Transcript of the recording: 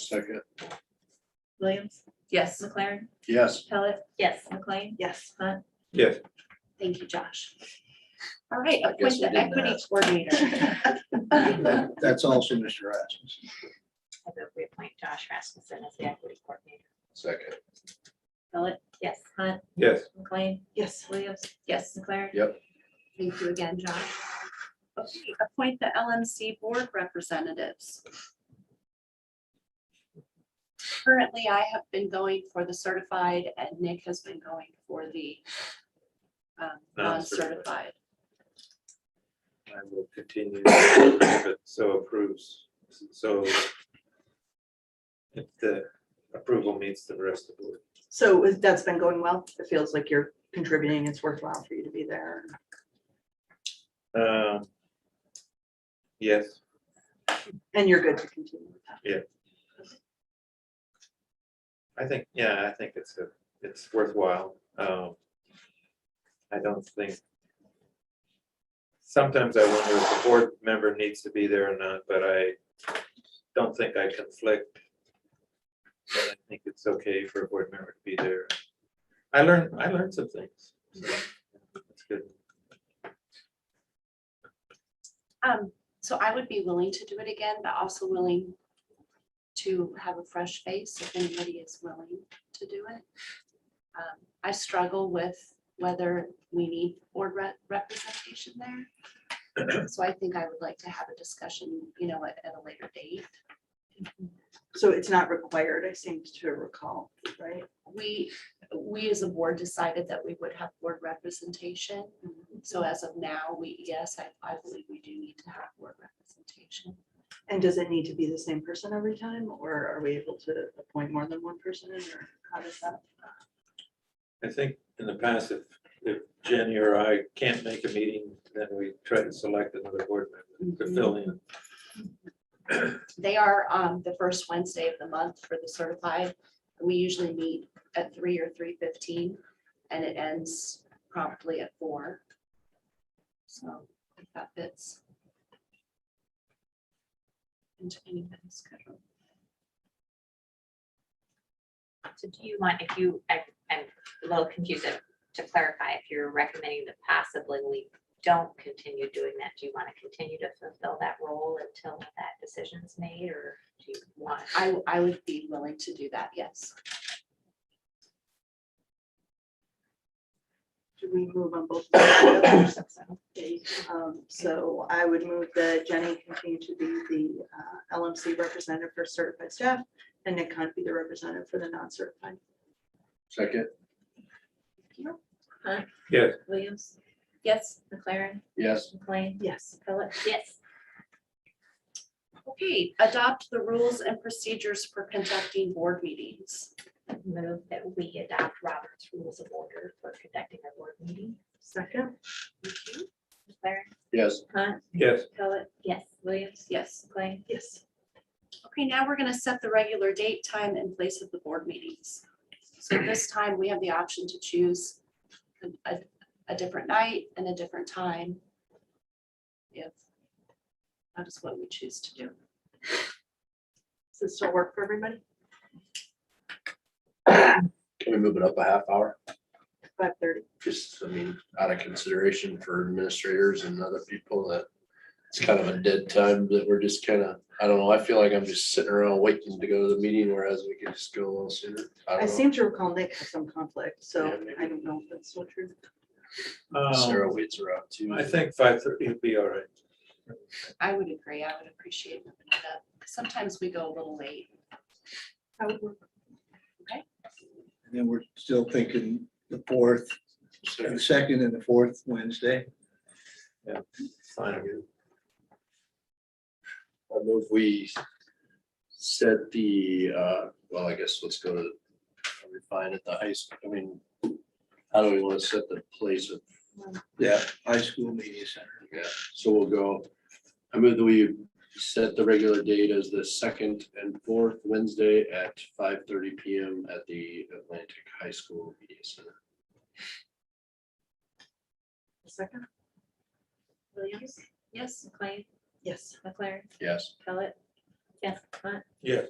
Second, Williams, Yes. McLaren, yes, Pellet, Yes. McLean, Yes. Hunt. Yes. Thank you, Josh. All right, appoint guess the we didn't equity ask. coordinator. That- that's also Mr. Rasmus. I move we appoint Josh Rasmussen as the equity coordinator. Second, Pellet, Yes. Hunt, Yes. McLean, Yes. Williams, Yes. McLaren. Yep. Thank you again, Josh. Okay, Appoint the LMC board representatives. Currently, I have been going for the certified and Nick has been going for the um, non-certified. Non-certified. I will continue if it so approves, so if the approval meets the rest of the, So is- that's been going well. It feels like you're contributing. It's worthwhile for you to be there. um, yes, And you're good to continue with that. I think, yeah, I think it's a, it's worthwhile. Um, I don't think sometimes I wonder if the board member needs to be there or not, but I don't think I conflict. But I think it's okay for a board member to be there. I learned, I learned some things. so That's good. Um, so I would be willing to do it again, but also willing to have a fresh face if anybody is willing to do it. Um, I struggle with whether we need board rep- representation there. So I think I would like to have a discussion, you know, at, at a later date. So it's not required, I seem to recall, right? We, we as a board decided that we would have board representation. So as of now, we, yes, I, I believe we do need to have board representation. And does it need to be the same person every time or are we able to appoint more than one person or how does that? I think in the past, if, if Jenny or I can't make a meeting, then we try to select another board member to fill in. They are um, the first Wednesday of the month for the certified. We usually meet at three or three fifteen, and it ends promptly at four. So if that fits. Into anybody's schedule. So do you want, if you, I- I'm a little confused uh, to clarify, if you're recommending that possibly we don't continue doing that, do you want to continue to fulfill that role until that decision's made, or do you want? I, I would be willing to do that, yes. Do we move on both? of those? Okay, um, So I would move that Jenny continue to be the uh, LMC representative for certified staff and Nick Hunt be the representative for the non-certified. second, Yes. Williams? Yes. McLaren? yes, McLean? Yes. Philip? Yes. Okay, adopt the rules and procedures for conducting board meetings. Move that we adopt Robert's Rules of Order for conducting our board meeting. Second? Thank you. Claire? yes, Hunt? Yes, Pellet? Yes. Williams? Yes. McLean? Yes. Okay, now we're gonna set the regular date, time, and place of the board meetings. So this time, we have the option to choose a- a, a different night and a different time. If that is what we choose to do. Does this still work for everybody? can we move it up a half hour? Five thirty? Just, I mean, out of consideration for administrators and other people that it's kind of a dead time that we're just kind of, I don't know, I feel like I'm just sitting around waiting to go to the meeting, whereas we could just go a little sooner. I I don't know. seem to recall Nick had some conflict, so Yeah, maybe. I don't know if that's so true. um, Sarah waits around too. I think five thirty would be all right. I would agree, I would appreciate moving it up. Sometimes we go a little late. That would work. And then we're still thinking the fourth, the Second, second and the fourth Wednesday. Fine. I move we set the, uh, well, I guess let's go to refine at the high school, I mean, how do we want to set the place of Yeah. High school media center. Yeah, so we'll go, I move that we set the regular date as the second and fourth Wednesday at five thirty PM at the Atlantic High School Media Center. Second? Williams? Yes. McLean? Yes. McLaren? Yes, Pellet? Yes. Hunt? Yes.